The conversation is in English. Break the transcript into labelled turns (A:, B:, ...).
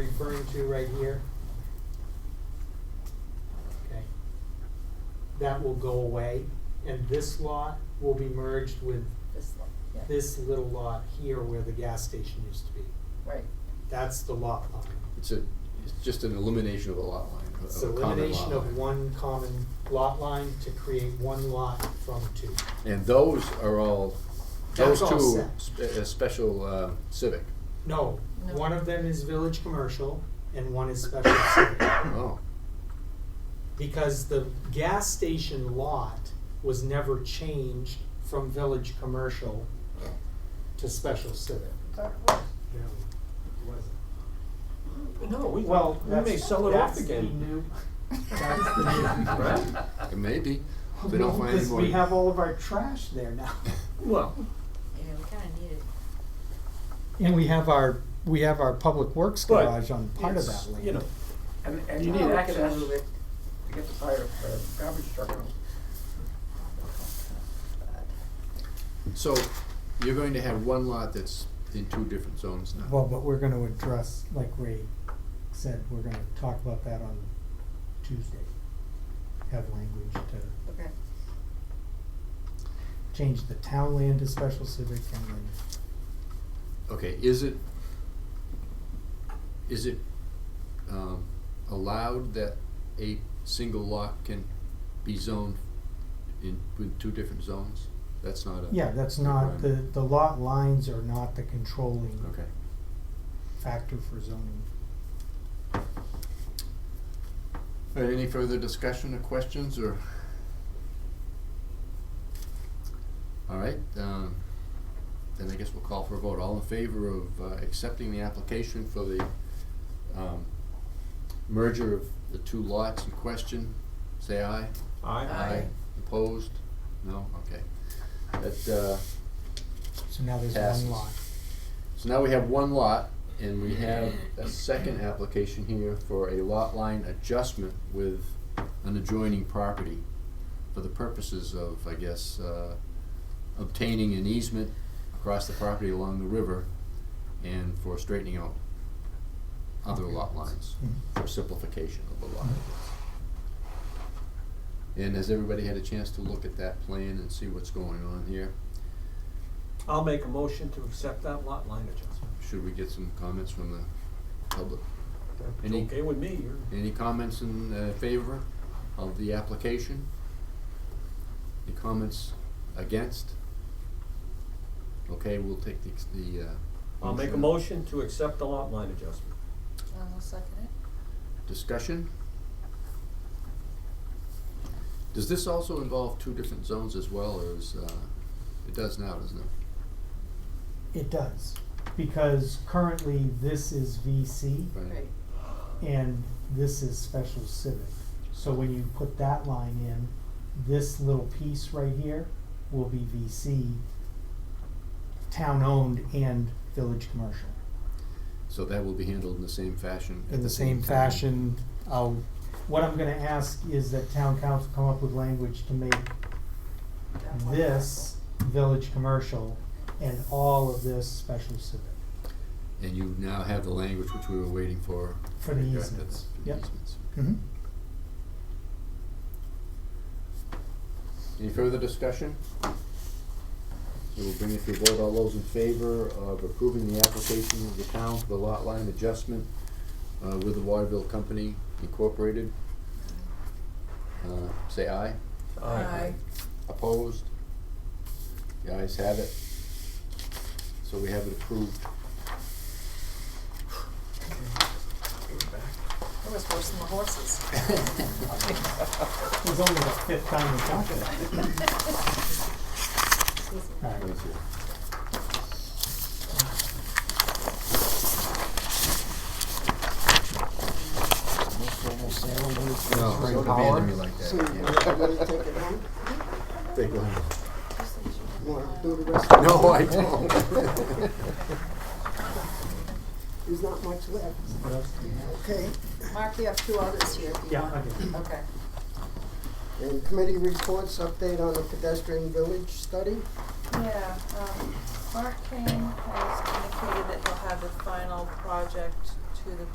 A: referring to right here? Okay. That will go away, and this lot will be merged with
B: This lot, yeah.
A: this little lot here where the gas station used to be.
B: Right,
A: That's the lot line.
C: It's a, it's just an elimination of a lot line, of
A: It's
C: a common lot
A: elimination
C: line.
A: of one common lot line to create one lot from two.
C: And those are all,
A: That's
C: those
A: all
C: two,
A: set.
C: spe- uh, special uh, civic.
A: No,
B: No.
A: one of them is village commercial and one is special civic.
C: Oh,
A: because the gas station lot was never changed from village commercial to special civic.
B: Sorry, what?
A: No,
D: No, we,
A: Well,
D: we may
A: that's-
D: sell it off
A: that's the
D: again.
A: new- that's the new-
D: Right?
C: it may be. They don't find any
A: Because
C: more.
A: we have all of our trash there now.
D: Well,
B: yeah, we kinda need it.
A: And we have our, we have our public works
D: But
A: garage on part of
D: it's,
A: that land.
D: you know,
E: And, and
D: You
E: you need
D: need
E: access
D: access.
E: to it to get the fire, uh, garbage truck out.
C: So you're going to have one lot that's in two different zones now.
F: Well, but we're gonna address, like Ray said, we're gonna talk about that on Tuesday. Have language to
B: Okay,
F: change the town land to special civic and then,
C: Okay, is it, is it um, allowed that a single lot can be zoned in, with two different zones? That's not a.
F: yeah, that's not, the,
C: requirement.
F: the lot lines are not the controlling
C: Okay.
F: factor for zoning.
C: All right, any further discussion or questions or? All right, um, then I guess we'll call for a vote. All in favor of, uh, accepting the application for the, um, merger of the two lots in question, say aye.
D: I,
C: Opposed? No? Okay. That, uh,
F: So now there's
C: Passes.
F: one lot.
C: so now we have one lot and we have a second application here for a lot line adjustment with an adjoining property for the purposes of, I guess, uh, obtaining an easement across the property along the river and for straightening out other lot lines, for simplification of the lot. And has everybody had a chance to look at that plan and see what's going on here?
D: I'll make a motion to accept that lot line adjustment.
C: Should we get some comments from the public?
D: It's
C: Any-
D: okay with me, you're,
C: Any comments in uh, favor of the application? Any comments against? Okay, we'll take the, ex- the, uh.
D: I'll make a motion to accept the lot line adjustment.
B: I'll second it.
C: Discussion? Does this also involve two different zones as well, or is, uh, it does now, doesn't it?
F: It does, because currently this is VC
B: Right,
F: and this is special civic. So when you put that line in, this little piece right here will be VC, town-owned and village commercial.
C: So that will be handled in the same fashion? at
F: In the same
C: time.
F: fashion, I'll, what I'm gonna ask is that town council come up with language to make
B: that one
F: this village commercial and all of this special civic.
C: And you now have the language which we were waiting for.
F: For the
C: Yeah,
F: easements,
C: that's for the
F: yep.
C: easements.
F: Mm-hmm.
C: Any further discussion? So we'll bring it to a vote. All those in favor of approving the application of the town for the lot line adjustment uh, with the Waterville Company Incorporated? Uh, say aye.
B: Aye.
C: Opposed? The ayes have it. So we have it approved.
B: That was worse than the horses.
F: It was only the fifth time we talked about it.
B: Excuse me.
F: All right.
C: Thank you. No, don't abandon me like that. Take one.
G: do the rest,
C: No, I don't.
G: there's not much left, okay?
B: Mark, you have two others here if you
F: Yeah,
B: want.
F: okay.
B: Okay.
G: And committee reports, update on the pedestrian village study.
H: Yeah, um, Mark Kane has indicated that he'll have the final project to the